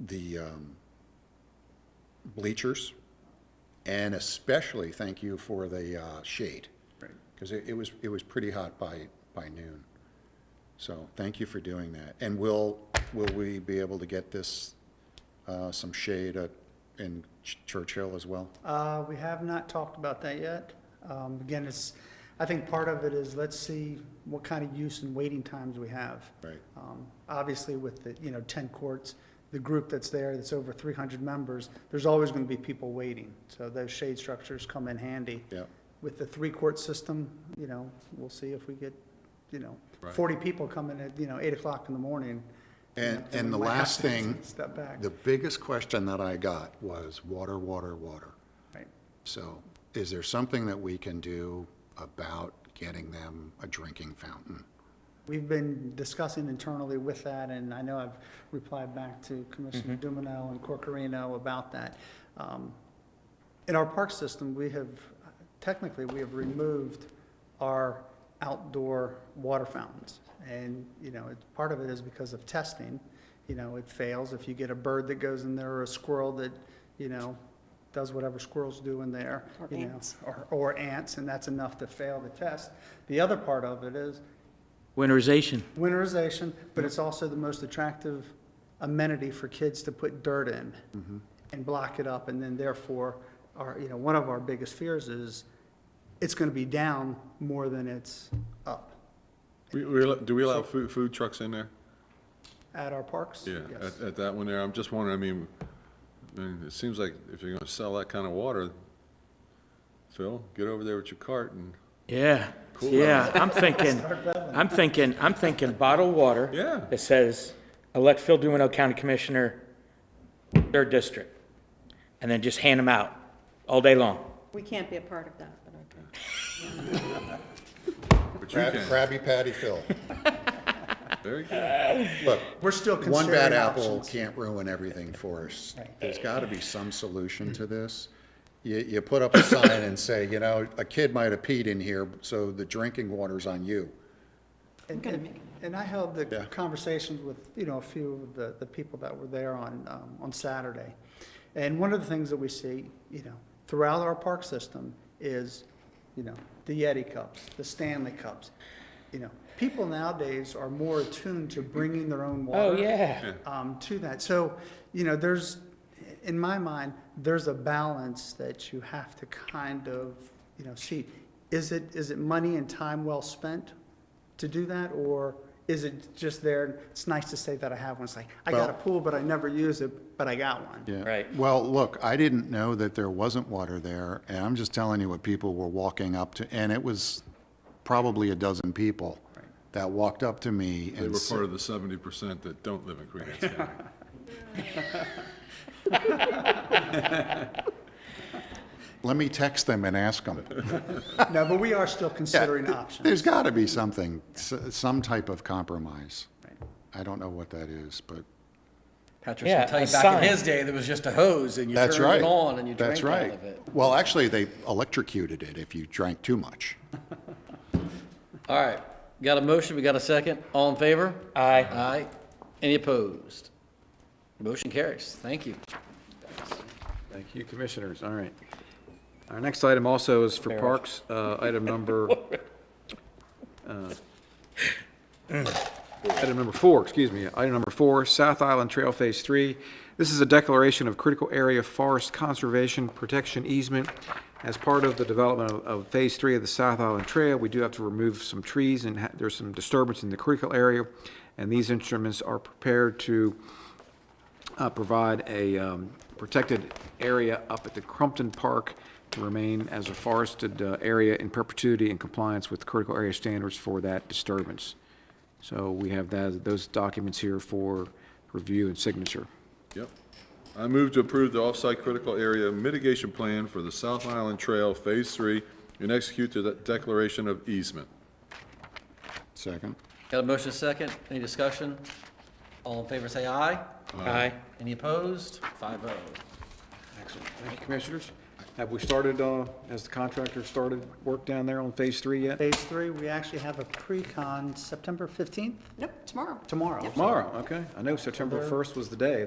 the um, bleachers, and especially thank you for the uh, shade. Right. Because it it was, it was pretty hot by, by noon. So thank you for doing that. And will, will we be able to get this, uh, some shade at- in Ch- Churchill as well? Uh, we have not talked about that yet. Um, again, it's, I think part of it is, let's see what kind of use and waiting times we have. Right, Um, obviously with the, you know, ten courts, the group that's there, that's over three hundred members, there's always gonna be people waiting. So those shade structures come in handy. yeah, With the three-court system, you know, we'll see if we get, you know, Right. forty people coming at, you know, eight o'clock in the morning. you know, And- then and we the might have last to thing- Step back, The biggest question that I got was water, water, water. right? So is there something that we can do about getting them a drinking fountain? We've been discussing internally with that, and I know I've replied back to Commissioner Dumino and Corcorino about that. Um, In our park system, we have, technically, we have removed our outdoor water fountains. And, you know, it's, part of it is because of testing, you know, it fails. If you get a bird that goes in there or a squirrel that, you know, does whatever squirrels do in there, Or you know. ants. Or, or ants, and that's enough to fail the test. The other part of it is, Winterization. winterization, but it's also the most attractive amenity for kids to put dirt in and block it up, and then therefore, our, you know, one of our biggest fears is it's gonna be down more than it's up We, we, allo- do we allow food, food trucks in there? at our parks. Yeah, Yes. at, at that one there, I'm just wondering, I mean, I mean, it seems like if you're gonna sell that kind of water, Phil, get over there with your cart and, Yeah, yeah, I'm thinking, I'm thinking, I'm thinking bottled water. Yeah. That says, elect Phil Duino County Commissioner, third district. And then just hand them out all day long. We can't be a part of that, but okay. but you can, Krabby Patty Phil. very good. Look, We're still one bad considering apple options. can't ruin everything for us. Right. Mm-hmm. There's got to be some solution to this. You, you put up a sign and say, you know, a kid might have peed in here, so the drinking water's on you. And- gonna and- make it. And I held the Yeah. conversations with, you know, a few of the, the people that were there on, um, on Saturday. And one of the things that we see, you know, throughout our park system is, you know, the Yeti cups, the Stanley cups. You know, people nowadays are more attuned to bringing their own water Oh, yeah. um, to that. So, you know, there's, in my mind, there's a balance that you have to kind of, you know, see. Is it, is it money and time well spent to do that, or is it just there? It's nice to say that I have one. It's like, I got a Well- pool, but I never use it, but I got one. Yeah. Right. Well, look, I didn't know that there wasn't water there, and I'm just telling you what people were walking up to, and it was probably a dozen people that walked up to me They and were part said, of the seventy percent that don't live in Queen Anne's County. let me text them and ask them. No, but we are still considering options. There's got to be something, s- some type of compromise. Right. I don't know what that is, but Patrick's Yeah, gonna tell you a back sign. in his day, there was just a hose and you that's turned right. it on and you That's drank out right. of it. Well, actually, they electrocuted it if you drank too much. All right, got a motion, we got a second, all in favor? Aye. Aye. Any opposed? Motion carries, thank you. Thank you, Commissioners. All right. Our next item also is for Parks, uh, item number, uh, item number four, excuse me, item number four, South Island Trail Phase Three. This is a declaration of critical area forest conservation protection easement. As part of the development of- of Phase Three of the South Island Trail, we do have to remove some trees and ha- there's some disturbance in the critical area. And these instruments are prepared to uh, provide a um, protected area up at the Crumpton Park to remain as a forested uh, area in perpetuity in compliance with critical area standards for that disturbance. So we have that, those documents here for review and signature. Yep. I move to approve the off-site critical area mitigation plan for the South Island Trail Phase Three and execute the declaration of easement. Second? Got a motion, a second, any discussion? All in favor, say aye. Aye. Any opposed? Five oh. Excellent. Thank you, Commissioners. Have we started, uh, has the contractor started work down there on Phase Three yet? Phase three, we actually have a pre-con September fifteenth, Nope, tomorrow. tomorrow. Tomorrow, okay. I know September 1st was the day.